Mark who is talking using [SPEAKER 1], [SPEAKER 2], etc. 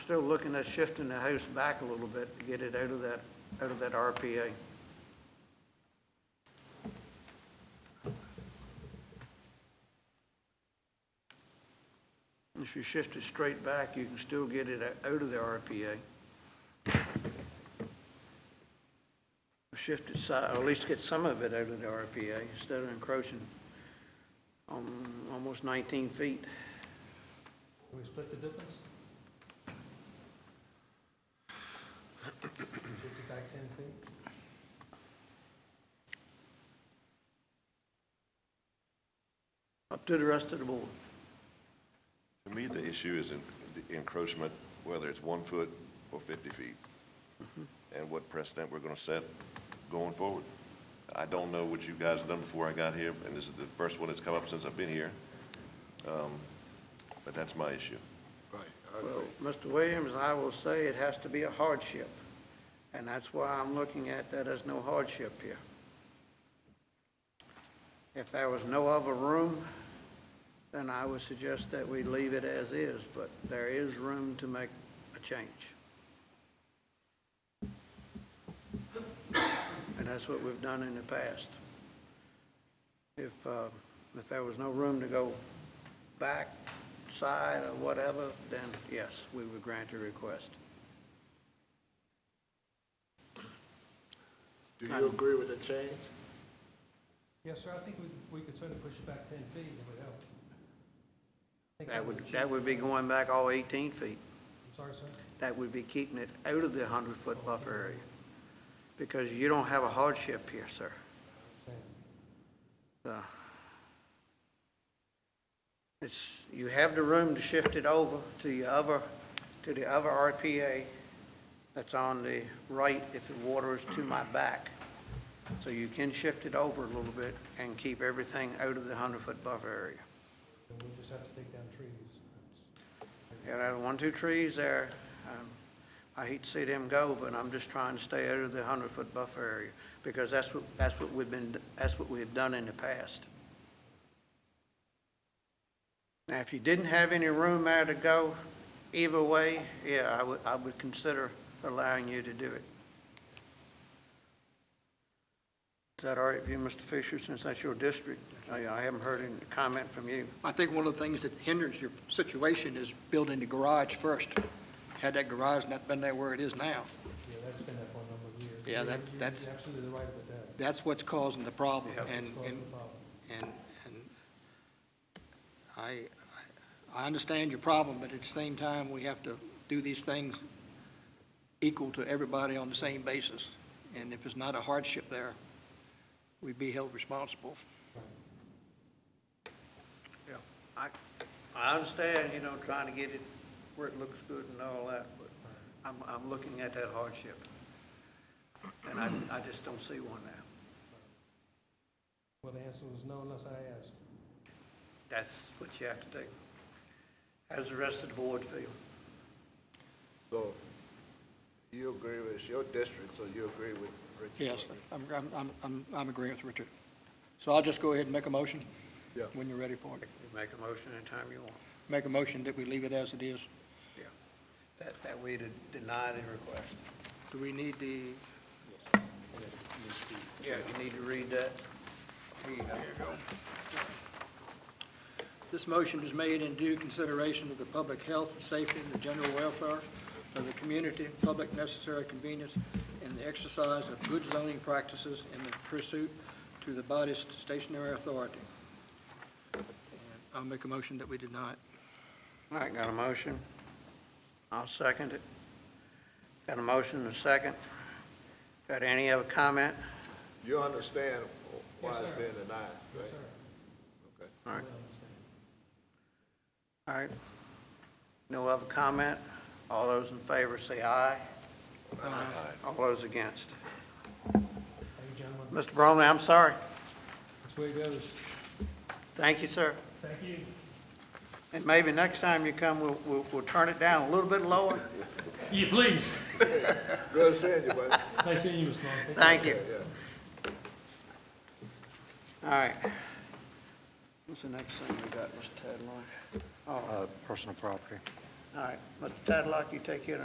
[SPEAKER 1] still looking at shifting the house back a little bit to get it out of that, out of that RPA. If you shift it straight back, you can still get it out of the RPA. Shift it side, or at least get some of it out of the RPA instead of encroaching on almost 19 feet.
[SPEAKER 2] Can we split the difference? Fifty back ten feet?
[SPEAKER 1] Up to the rest of the board.
[SPEAKER 3] To me, the issue is en- the encroachment, whether it's one foot or 50 feet, and what precedent we're going to set going forward. I don't know what you guys have done before I got here, and this is the first one that's come up since I've been here, Um, but that's my issue.
[SPEAKER 4] Right, I
[SPEAKER 1] Well,
[SPEAKER 4] agree.
[SPEAKER 1] Mr. Williams, I will say it has to be a hardship, and that's why I'm looking at that as no hardship here. If there was no other room, then I would suggest that we leave it as is, but there is room to make a change. And that's what we've done in the past. If, uh, if there was no room to go back, side, or whatever, then yes, we would grant your request.
[SPEAKER 4] Do you agree with the change?
[SPEAKER 2] Yes, sir, I think we, we could certainly push it back ten feet, it would help. I think
[SPEAKER 1] That would,
[SPEAKER 2] achieve-
[SPEAKER 1] that would be going back all 18 feet.
[SPEAKER 2] I'm Sorry, sir?
[SPEAKER 1] That would be keeping it out of the 100-foot buffer area, because you don't have a hardship here, sir.
[SPEAKER 2] Sam.
[SPEAKER 1] So, It's, you have the room to shift it over to the other, to the other RPA that's on the right if the water is to my back. So you can shift it over a little bit and keep everything out of the 100-foot buffer area.
[SPEAKER 2] Then we just have to take down trees.
[SPEAKER 1] You know, one, two trees there, um, I hate to see them go, but I'm just trying to stay out of the 100-foot buffer area, because that's what, that's what we've been, that's what we have done in the past. Now, if you didn't have any room there to go either way, yeah, I would, I would consider allowing you to do it. Is that all right with you, Mr. Fisher, since that's your district? I I haven't heard any comment from you.
[SPEAKER 5] I think one of the things that hinders your situation is building the garage first. Had that garage not been there where it is now,
[SPEAKER 2] Yeah, that's been up for a number of years.
[SPEAKER 5] Yeah,
[SPEAKER 2] You're-
[SPEAKER 5] that-
[SPEAKER 2] you're
[SPEAKER 5] that's-
[SPEAKER 2] Absolutely right with that.
[SPEAKER 5] that's what's causing the problem.
[SPEAKER 1] Yeah.
[SPEAKER 5] And,
[SPEAKER 2] Causing
[SPEAKER 5] and,
[SPEAKER 2] the problem.
[SPEAKER 5] and, and I, I understand your problem, but at the same time, we have to do these things equal to everybody on the same basis. And if it's not a hardship there, we'd be held responsible.
[SPEAKER 1] Yeah, I, I understand, you know, trying to get it where it looks good and all that, but I'm, I'm looking at that hardship. And I, I just don't see one there.
[SPEAKER 2] Well, the answer was no unless I asked.
[SPEAKER 1] That's what you have to do. How's the rest of the board feel?
[SPEAKER 4] So you agree with, it's your district, so you agree with Richard?
[SPEAKER 5] Yes, I'm, I'm, I'm- I'm, I'm agreeing with Richard. So I'll just go ahead and make a motion
[SPEAKER 4] Yeah.
[SPEAKER 5] when you're ready for it.
[SPEAKER 1] You make a motion anytime you want.
[SPEAKER 5] Make a motion that we leave it as it is.
[SPEAKER 1] Yeah. That, that way to deny the request.
[SPEAKER 5] Do we need the,
[SPEAKER 1] Yeah, you need to read that. Here you go.
[SPEAKER 5] this motion is made in due consideration of the public health, safety, and the general welfare of the community, public necessary convenience, and the exercise of good zoning practices in the pursuit to the body's stationary authority. And I'll make a motion that we deny it.
[SPEAKER 1] All right, got a motion? I'll second it. Got a motion and a second? Got any other comment?
[SPEAKER 4] You understand why
[SPEAKER 2] Yes,
[SPEAKER 4] it's
[SPEAKER 2] sir.
[SPEAKER 4] being denied,
[SPEAKER 2] Yes,
[SPEAKER 4] right?
[SPEAKER 2] sir.
[SPEAKER 4] Okay.
[SPEAKER 1] All right.
[SPEAKER 2] Well, I understand.
[SPEAKER 1] All right. No other comment? All those in favor say aye. Aye. All those against.
[SPEAKER 2] Thank you, gentlemen.
[SPEAKER 1] Mr. Bromley, I'm sorry.
[SPEAKER 2] That's the way it goes.
[SPEAKER 1] Thank you, sir.
[SPEAKER 2] Thank you.
[SPEAKER 1] And maybe next time you come, we'll, we'll, we'll turn it down a little bit lower.
[SPEAKER 2] Yeah, please.
[SPEAKER 4] Good seeing you, buddy.
[SPEAKER 2] Nice seeing you, Mr. Long. Thank you.
[SPEAKER 1] Thank you.
[SPEAKER 4] Yeah.
[SPEAKER 1] All right. What's the next thing we got, Mr. Tadlock? Oh.
[SPEAKER 6] uh, personal property.
[SPEAKER 1] All right, Mr. Tadlock, you take care of